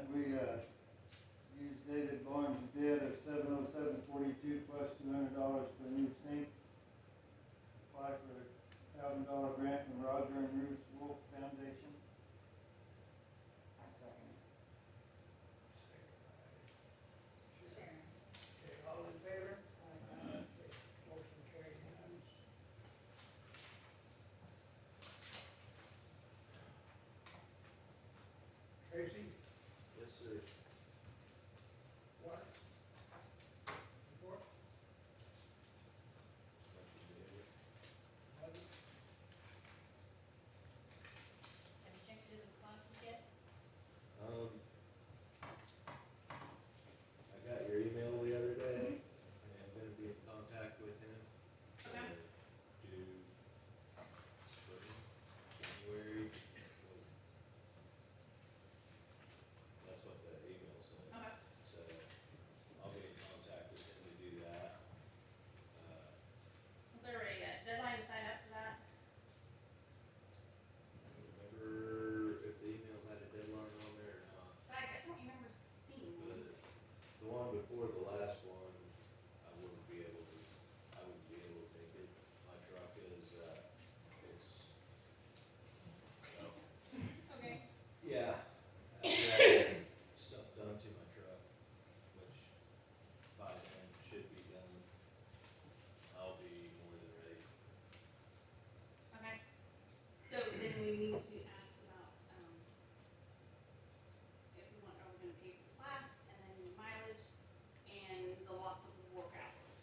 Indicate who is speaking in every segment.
Speaker 1: uh, David Barnes bid of seven oh seven forty-two plus two hundred dollars for a new sink. Apply for a thousand dollar grant from Roger and Ruth Wolf Foundation.
Speaker 2: I second it.
Speaker 3: Sharon.
Speaker 4: Okay, all in favor?
Speaker 3: Aye.
Speaker 4: Motion carried unanimous. Tracy,
Speaker 5: Yes, sir.
Speaker 4: what? Report? Nothing?
Speaker 3: Have you checked into the classes yet?
Speaker 5: Um, I got your email the other day, and I'm gonna be in contact with him. to
Speaker 3: Okay.
Speaker 5: Do spring, January. like, That's what the email said.
Speaker 3: Okay.
Speaker 5: So I'll be in contact with him to do that. Uh,
Speaker 3: Is there a uh, deadline to sign up for that?
Speaker 5: I don't remember if the email had a deadline on there or not.
Speaker 3: Like, I don't remember seeing one.
Speaker 5: The the one before the last one, I wouldn't be able to, I wouldn't be able to make it. My truck is, uh, it's, well,
Speaker 3: Okay.
Speaker 5: yeah. I had Stuff done to my truck, which by then should be done. I'll be more than ready.
Speaker 3: Okay. So then we need to ask about, um, if we want, are we gonna pay for the class and then the mileage and the loss of work hours?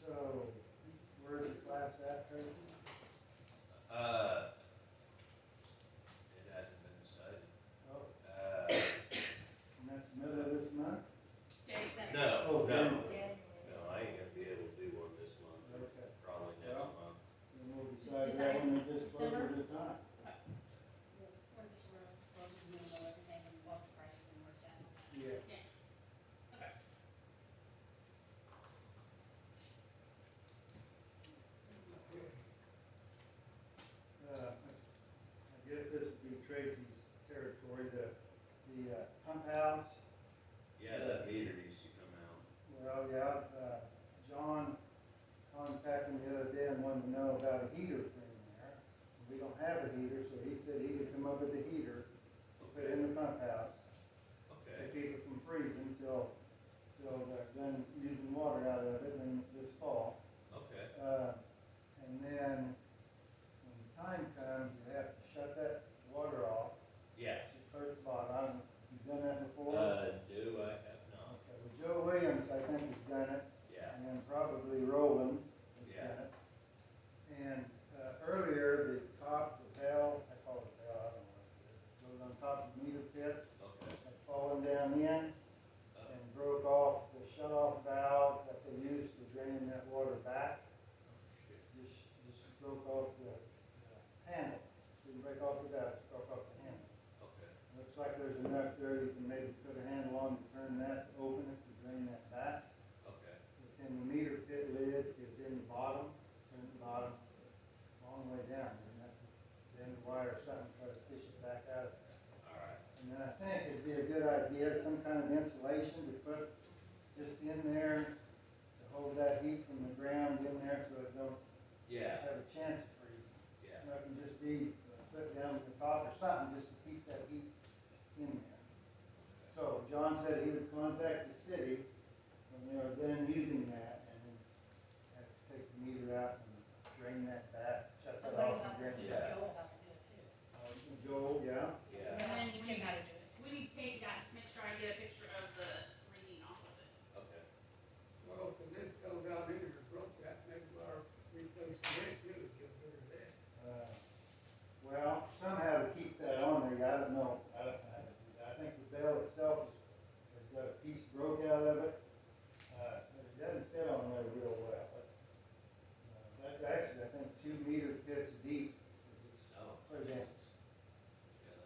Speaker 1: So, where's the class at, Tracy?
Speaker 5: Uh, it hasn't been decided.
Speaker 1: Oh,
Speaker 5: Uh,
Speaker 1: and that's middle of this month?
Speaker 3: Jay, that.
Speaker 5: no,
Speaker 1: Oh,
Speaker 5: no,
Speaker 1: January.
Speaker 5: no, I ain't gonna be able to do one this month.
Speaker 1: Okay,
Speaker 5: Probably next
Speaker 1: Well-
Speaker 5: month.
Speaker 1: then we'll
Speaker 3: Just
Speaker 1: decide
Speaker 3: decide
Speaker 1: that one at
Speaker 3: in
Speaker 1: this closer
Speaker 3: December?
Speaker 1: to time.
Speaker 6: We're just, we're, we're gonna know everything and what the price is and work that.
Speaker 1: Yeah. Uh,
Speaker 4: Okay.
Speaker 1: Uh, I guess this would be Tracy's territory, the, the uh, pump house,
Speaker 5: Yeah, that meter used to come out.
Speaker 1: well, yeah, uh, John contacted me the other day and wanted to know about a heater thing there. We don't have a heater, so he said he could come up with a heater, put it in the pump house, to
Speaker 5: Okay,
Speaker 1: keep it from freezing till, till they're done using water out of it in this fall.
Speaker 5: okay.
Speaker 1: Uh, and then, when the time comes, you have to shut that water off,
Speaker 5: Yeah.
Speaker 1: First spot, I'm, you've done that before?
Speaker 5: Uh, do I have not?
Speaker 1: Okay, well, Joe Williams, I think, has done it,
Speaker 5: Yeah,
Speaker 1: and then probably Roland has
Speaker 5: Yeah.
Speaker 1: done it. And, uh, earlier, the top, the bell, I call it bell, I don't know, it was on top of the meter pit,
Speaker 5: okay.
Speaker 1: had fallen down in
Speaker 5: Uh,
Speaker 1: and broke off the shut-off valve that they used to drain that water back,
Speaker 5: shit.
Speaker 1: just, just broke off the, the handle. Didn't break off the valve, just broke off the handle.
Speaker 5: Okay,
Speaker 1: Looks like there's enough there, you can maybe put a handle on to turn that open if you drain that back.
Speaker 5: okay.
Speaker 1: And the meter pit lid is in the bottom, in the bottom, long way down, and that, then the wire or something, try to fish it back out. of there.
Speaker 5: All right.
Speaker 1: And then I think it'd be a good idea, some kind of insulation to put just in there to hold that heat from the ground in there so it don't
Speaker 5: Yeah,
Speaker 1: have a chance of freezing. uh,
Speaker 5: yeah,
Speaker 1: And it can just be a foot down from the top or something, just to keep that Uh, Uh, Uh, uh, uh,